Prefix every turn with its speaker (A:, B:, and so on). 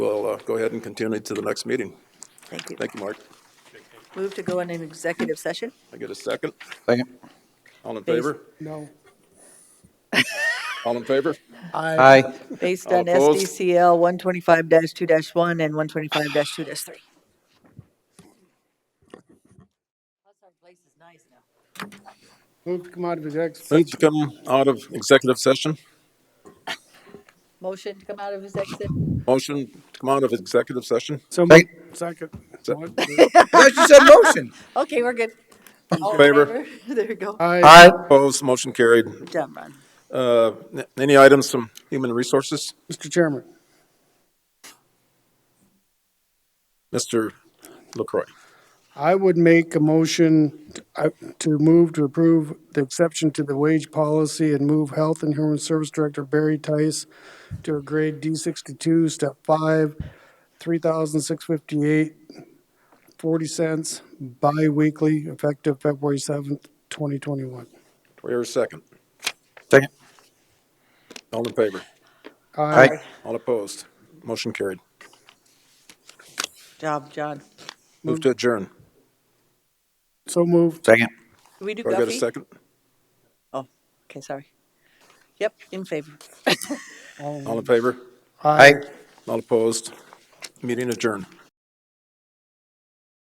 A: uh, go ahead and continue to the next meeting.
B: Thank you.
A: Thank you, Mark.
B: Move to go in an executive session?
A: I get a second?
C: Second.
A: All in
B: Please.
A: favor?
D: No.
A: All in favor?
C: Aye.
B: Based
A: All
B: on
A: opposed?
B: SDCL 125-2-1 and 125-2-3.
D: Move to come out of executive
A: Move
D: session.
A: to come out of executive session.
B: Motion to come out of executive?
A: Motion to come out of executive session.
D: So
C: Sec-
D: moved. Second.
A: Se-
C: Thought you said motion.
B: Okay, we're good. All in
A: Favor.
B: There you go.
D: Aye.
C: Aye.
A: Opposed, motion carried.
B: Good job, Ron.
A: Uh, n- Any items from Human Resources?
D: Mr. Chairman,
A: Mr. LaCroy.
D: I would make a motion uh, to move to approve the exception to the wage policy and move Health and Human Service Director Barry Tice to a grade D sixty-two, step five, three thousand six fifty-eight, forty cents, bi-weekly, effective February seventh, twenty twenty-one.
A: Do I hear a second?
C: Second.
A: All in favor?
C: Aye.
A: All opposed, motion carried.
B: Job, John.
A: Move to adjourn.
D: So moved.
C: Second.
B: Do we do
A: Do I get a
B: Guffey?
A: second?
B: Oh, okay, sorry. Yep, in favor.
A: All in favor?
C: Aye.
A: All opposed? Meeting adjourned.